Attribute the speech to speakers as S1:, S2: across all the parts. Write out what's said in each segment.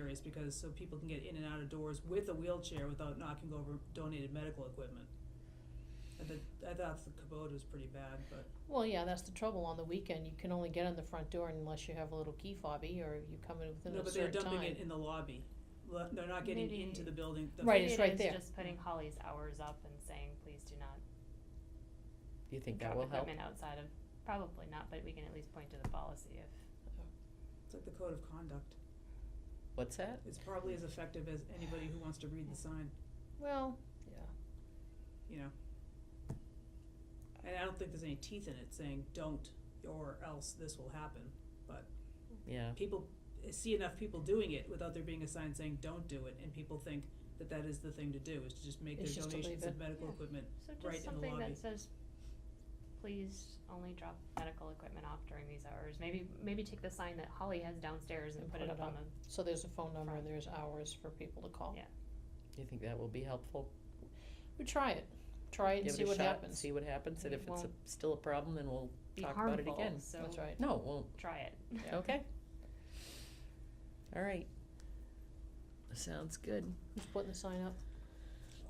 S1: race because, so people can get in and out of doors with a wheelchair without knocking over donated medical equipment. I thought, I thought the Kubota was pretty bad, but,
S2: Well, yeah, that's the trouble. On the weekend, you can only get in the front door unless you have a little key fobby or you come in within
S1: no,
S2: a
S1: but they're
S2: certain time.
S1: dumping it in the lobby. Le- They're not getting
S3: Maybe-
S1: into the building. The-
S2: Right,
S3: Maybe
S2: it's
S3: it
S2: right
S3: is
S2: there.
S3: Just putting Holly's hours up and saying, please do not
S4: Do you think that
S3: drop
S4: will help?
S3: equipment outside of, probably not, but we can at least point to the policy if.
S1: It's like the code of conduct.
S4: What's that?
S1: It's probably as effective as anybody who wants to read the sign,
S2: Well, yeah.
S1: you know? And I don't think there's any teeth in it saying, don't, or else this will happen.
S4: Yeah.
S1: people see enough people doing it without there being a sign saying don't do it and people think that that is the thing to do is to just make
S2: It's
S1: their
S2: just to leave
S1: donations of
S2: it.
S1: medical
S3: Yeah.
S1: equipment
S3: So
S1: Right in the
S3: just something
S1: lobby.
S3: that says, please only drop medical equipment off during these hours. Maybe, maybe take the sign that Holly has downstairs and put it up on the,
S2: So there's a phone number
S3: Front.
S2: and there's hours for people to call.
S3: Yeah.
S4: Do you think that will be helpful?
S2: We try it. Try it and
S4: Give
S2: see
S4: it a
S2: what
S4: shot,
S2: happens.
S4: See what happens, and
S3: It
S4: if it's a,
S3: won't
S4: still a problem, then we'll,
S3: be
S4: Talk about it
S3: harmful,
S4: again.
S3: so
S2: That's right.
S4: no, it won't,
S3: try it.
S2: Yeah.
S4: okay. All right. Sounds good.
S2: Who's putting the sign up?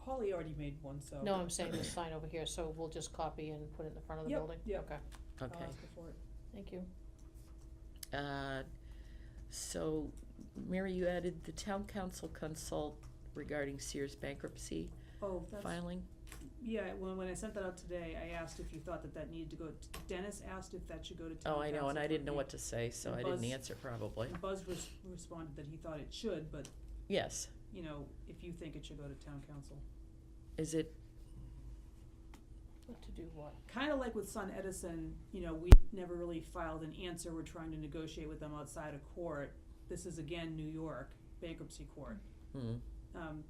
S1: holly already made one so
S2: No, I'm saying the sign over here, so we'll just copy and put it in the front of the
S1: Yep,
S2: building?
S1: yep.
S2: Okay,
S1: I'll
S4: Okay.
S1: ask her for it.
S2: thank you.
S4: Uh, so, Mary, you added the town council consult regarding Sears bankruptcy
S1: oh that's
S4: filing.
S1: yeah well when i sent that out today i asked if you thought that that needed to go t- dennis asked if that should go to town
S4: Oh, I know, and
S1: council
S4: I
S1: for
S4: didn't know
S1: review.
S4: what to say, so
S1: And
S4: I didn't
S1: Buzz-
S4: answer probably.
S1: And buzz res- responded that he thought it should but
S4: Yes,
S1: you know if you think it should go to town council
S4: is it,
S2: What to do what?
S1: kind of like with Sun Edison, you know, we never really filed an answer. We're trying to negotiate with them outside of court. This is again New York bankruptcy court.
S4: hmm,
S1: Um,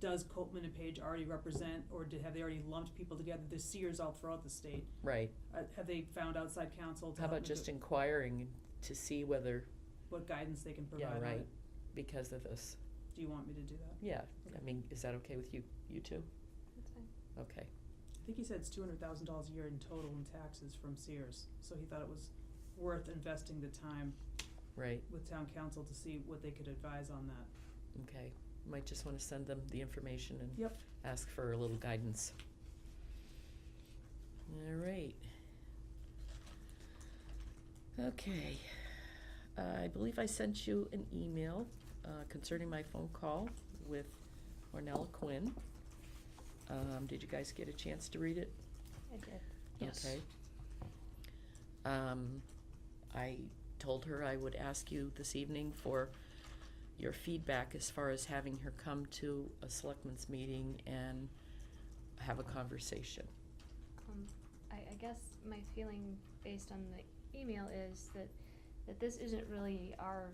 S1: does Copman and Page already represent, or did, have they already lumped people together? There's Sears all throughout the state.
S4: right.
S1: Uh, have they found outside counsel to
S4: How
S1: help
S4: about
S1: nego-
S4: just inquiring to see whether,
S1: what guidance they can provide?
S4: yeah,
S1: on
S4: right,
S1: it?
S4: because of this,
S1: Do you want me to do that?
S4: yeah, I
S1: Okay.
S4: mean, is that okay with you, you two?
S3: That's fine.
S4: Okay,
S1: I think he said it's two hundred thousand dollars a year in total in taxes from Sears. So he thought it was worth investing the time
S4: right,
S1: with town council to see what they could advise on that.
S4: okay. Might just wanna send them the information and
S1: Yep.
S4: ask for a little guidance. All right. Okay. I believe I sent you an email uh, concerning my phone call with Ornella Quinn. Um, Did you guys get a chance to read it?
S3: I did.
S2: Yes.
S4: Okay. Um, I told her I would ask you this evening for your feedback as far as having her come to a selectmen's meeting and have a conversation.
S3: Um, I, I guess my feeling based on the email is that, that this isn't really our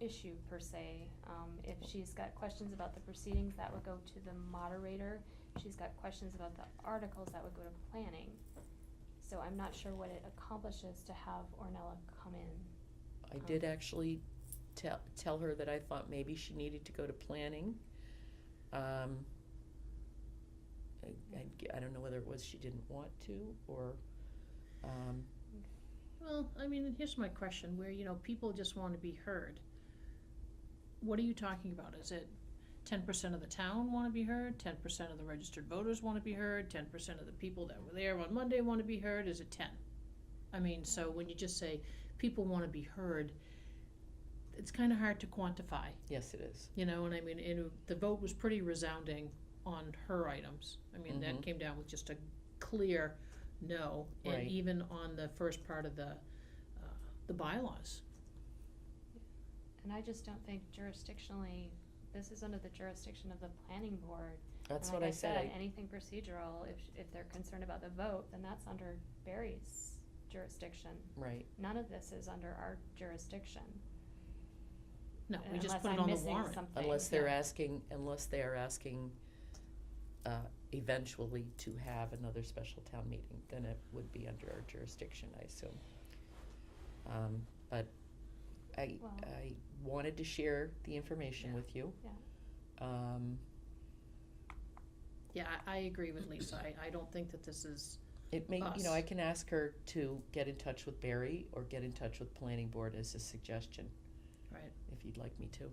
S3: issue per se. Um, if she's got questions about the proceedings, that would go to the moderator. If She's got questions about the articles, that would go to planning. So I'm not sure what it accomplishes to have Ornella come in.
S4: I did actually tell, tell her that I thought maybe she needed to go to planning. Um, I, I g- I don't know whether it was she didn't want to or, um,
S2: Well, I mean, and here's my question, where, you know, people just wanna be heard. What are you talking about? Is it ten percent of the town wanna be heard, ten percent of the registered voters wanna be heard, ten percent of the people that were there on Monday wanna be heard, is it ten? I mean, so when you just say people wanna be heard, it's kinda hard to quantify.
S4: yes, it is.
S2: You know, and I mean, and the vote was pretty resounding on her items. I mean,
S4: Mhm.
S2: that came down with just a clear no,
S4: Right.
S2: and even on the first part of the, uh, the bylaws.
S3: And I just don't think jurisdictionally, this is under the jurisdiction of the planning board.
S4: That's
S3: And
S4: what
S3: like
S4: I said. I-
S3: Anything procedural, if, sh- if they're concerned about the vote, then that's under Barry's jurisdiction.
S4: Right,
S3: None of this is under our jurisdiction.
S2: No, we just
S3: unless
S2: put it
S3: I'm
S2: on the
S3: missing
S2: warrant.
S3: something.
S4: unless they're asking, unless they are asking, uh, eventually to have another special town meeting, then it would be under our jurisdiction, I assume. Um, but I,
S3: Well-
S4: I wanted to share the information
S2: Yeah.
S4: with you.
S3: Yeah.
S4: Um,
S2: Yeah, I, I agree with Lisa. I, I don't think that this is,
S4: it may, you know,
S2: Us.
S4: I can ask her to get in touch with Barry or get in touch with planning board as a suggestion,
S2: right.
S4: if you'd like me to.